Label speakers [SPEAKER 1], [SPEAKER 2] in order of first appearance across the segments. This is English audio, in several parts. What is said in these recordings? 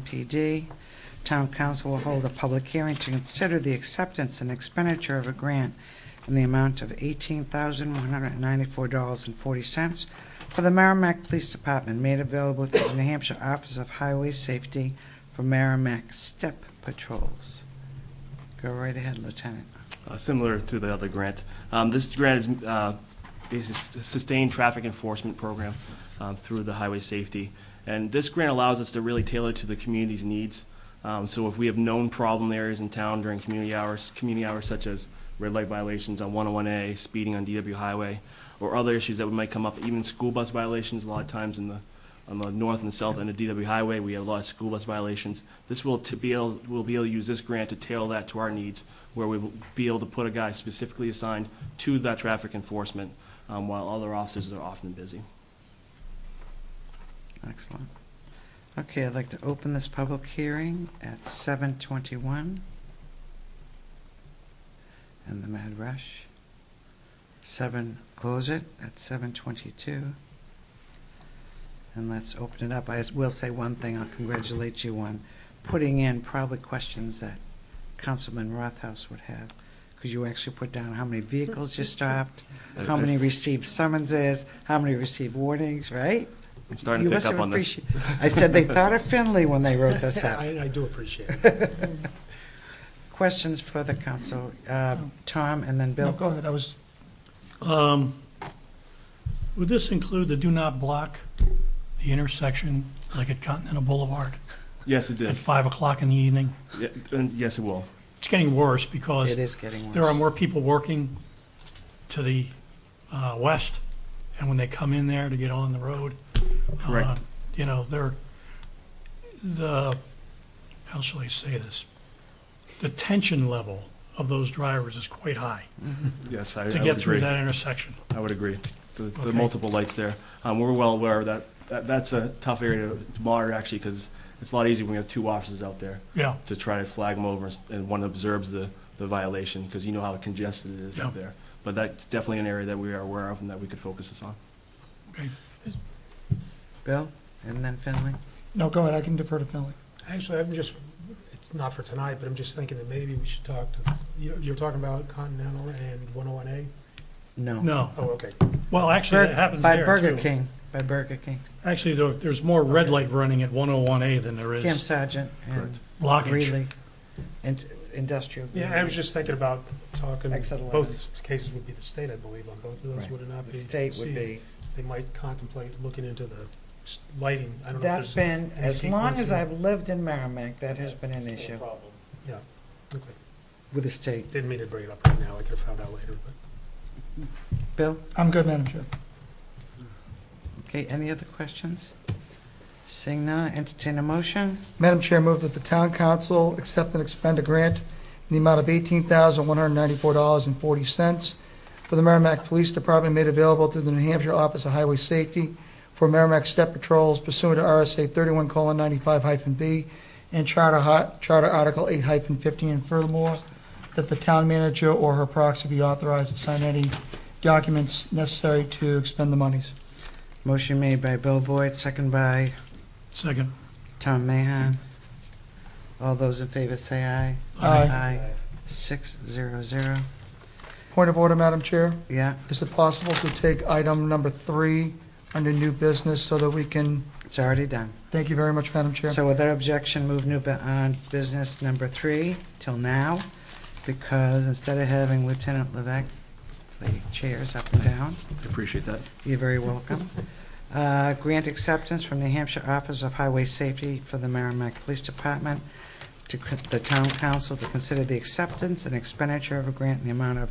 [SPEAKER 1] MPD. Town council will hold a public hearing to consider the acceptance and expenditure of a grant in the amount of $18,194.40 for the Merrimack Police Department made available through the New Hampshire Office of Highway Safety for Merrimack Step Patrols. Go right ahead, Lieutenant.
[SPEAKER 2] uh, similar to the other grant. Um, This grant is uh, is a sustained traffic enforcement program um, through the highway safety. And this grant allows us to really tailor to the community's needs. Um, So if we have known problem areas in town during community hours, community hours such as red light violations on 101A, speeding on DW Highway, or other issues that might come up, even school bus violations, a lot of times in the, on the north and south end of DW Highway, we have a lot of school bus violations. This will to be able, we'll be able to use this grant to tailor that to our needs, where we will be able to put a guy specifically assigned to that traffic enforcement, um, while other officers are often busy.
[SPEAKER 1] Excellent. Okay, I'd like to open this public hearing at seven twenty-one. And the mad rush. Seven, close it at seven twenty-two. And let's open it up. I will say one thing, I'll congratulate you on putting in probably questions that Councilman Rothhaus would have. Because you actually put down how many vehicles you stopped, how many received summonses, how many received warnings, right?
[SPEAKER 2] I'm starting
[SPEAKER 1] You
[SPEAKER 2] to pick
[SPEAKER 1] must
[SPEAKER 2] up
[SPEAKER 1] have
[SPEAKER 2] on this.
[SPEAKER 1] appreciate- I said they thought of Finley when they wrote this
[SPEAKER 3] Yeah,
[SPEAKER 1] up.
[SPEAKER 3] I, I do appreciate it.
[SPEAKER 1] Questions for the council? Uh, Tom and then
[SPEAKER 4] No,
[SPEAKER 1] Bill?
[SPEAKER 4] go ahead, I was,
[SPEAKER 3] Um, Would this include the do not block the intersection, like at Continental Boulevard,
[SPEAKER 2] Yes, it
[SPEAKER 3] at
[SPEAKER 2] is.
[SPEAKER 3] 5 o'clock in the evening?
[SPEAKER 2] Yeah, and Yes, it will.
[SPEAKER 3] It's getting worse because
[SPEAKER 1] It is getting worse.
[SPEAKER 3] there are more people working to the uh, west, and when they come in there to get on the road,
[SPEAKER 2] Correct.
[SPEAKER 3] uh, you know, they're, the, how shall I say this? The tension level of those drivers is quite high
[SPEAKER 2] Yes, I I would
[SPEAKER 3] to
[SPEAKER 2] agree.
[SPEAKER 3] get through that intersection.
[SPEAKER 2] I would agree. The, the
[SPEAKER 3] Okay.
[SPEAKER 2] multiple lights there. Um, we're well aware of that. that. That's a tough area to monitor actually because it's a lot easier when we have two officers out there
[SPEAKER 3] Yeah,
[SPEAKER 2] to try to flag them over and one observes the, the violation because you know how congested it is out
[SPEAKER 3] Yeah.
[SPEAKER 2] there. But that's definitely an area that we are aware of and that we could focus this on.
[SPEAKER 3] okay.
[SPEAKER 1] Bill and then Finley?
[SPEAKER 4] no, go ahead, I can defer to Finley.
[SPEAKER 5] Actually, I'm just, it's not for tonight, but I'm just thinking that maybe we should talk to, this- you- you're talking about Continental and 101A?
[SPEAKER 1] No.
[SPEAKER 3] No,
[SPEAKER 5] Oh, okay.
[SPEAKER 3] well, actually, that happens
[SPEAKER 1] By
[SPEAKER 3] there,
[SPEAKER 1] Burger
[SPEAKER 3] too.
[SPEAKER 1] King, by BurgerKing.
[SPEAKER 3] Actually, there- there's more red light running at 101A than there
[SPEAKER 1] Cam
[SPEAKER 3] is
[SPEAKER 1] Sargent and
[SPEAKER 2] Correct.
[SPEAKER 3] blockage.
[SPEAKER 1] Greeley, and industrial.
[SPEAKER 5] Yeah, I was just thinking about talking,
[SPEAKER 1] Exit 11.
[SPEAKER 5] both cases would be the state, I believe, on both of those,
[SPEAKER 1] Right.
[SPEAKER 5] would it not be?
[SPEAKER 1] The state
[SPEAKER 5] See,
[SPEAKER 1] would be,
[SPEAKER 5] They might contemplate looking into the s- lighting. I don't know
[SPEAKER 1] that's
[SPEAKER 5] if there's.
[SPEAKER 1] been,
[SPEAKER 5] any
[SPEAKER 1] as long
[SPEAKER 5] sequence
[SPEAKER 1] as
[SPEAKER 5] in-
[SPEAKER 1] I've lived in Merrimack, that has been an issue
[SPEAKER 5] Yeah, okay.
[SPEAKER 1] with the state.
[SPEAKER 5] Didn't mean to bring it up right now, I could have found out later, but.
[SPEAKER 1] Bill,
[SPEAKER 4] I'm good, Madam Chair.
[SPEAKER 1] okay, any other questions? Seeing none, entertain a motion.
[SPEAKER 4] Madam Chair, move that the town council accept and expend a grant in the amount of $18,194.40 for the Merrimack Police Department made available through the New Hampshire Office of Highway Safety for Merrimack Step Patrols pursuant to RSA 31:95-B and Charter Hi- Charter Article 8-15, and furthermore, that the town manager or her proxy be authorized to sign any documents necessary to expend the monies.
[SPEAKER 1] Motion made by Bill Boyd, second by
[SPEAKER 3] Second,
[SPEAKER 1] Tom Mahan. All those in favor say aye.
[SPEAKER 4] Aye.
[SPEAKER 1] Six zero zero.
[SPEAKER 4] Point of order, Madam Chair.
[SPEAKER 1] Yeah,
[SPEAKER 4] Is it possible to take item number three under new business so that we can,
[SPEAKER 1] it's already done.
[SPEAKER 4] thank you very much, Madam Chair.
[SPEAKER 1] So without objection, move new bu- on business number three till now, because instead of having Lieutenant Levesque play chairs up and down,
[SPEAKER 2] I appreciate that.
[SPEAKER 1] you're very welcome. Uh, Grant acceptance from New Hampshire Office of Highway Safety for the Merrimack Police Department to c- the Town Council to consider the acceptance and expenditure of a grant in the amount of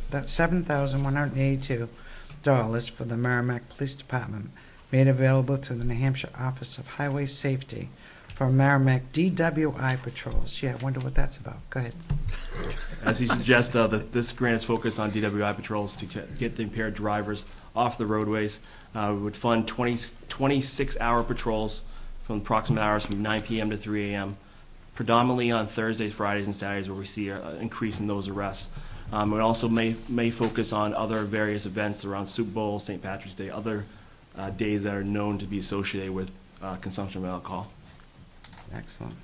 [SPEAKER 1] $7,182 for the Merrimack Police Department made available through the New Hampshire Office of Highway Safety for Merrimack DWI patrols. Yeah, I wonder what that's about. Go ahead.
[SPEAKER 2] As you suggest, uh, that this grant is focused on DWI patrols to get get the impaired drivers off the roadways. Uh, We would fund 20 26-hour patrols from approximate hours from 9 PM to 3 AM, predominantly on Thursdays, Fridays, and Saturdays where we see a- an increase in those arrests. Um, It also may may focus on other various events around Super Bowl, St. Patrick's Day, other uh, days that are known to be associated with uh, consumption of alcohol.
[SPEAKER 1] Excellent.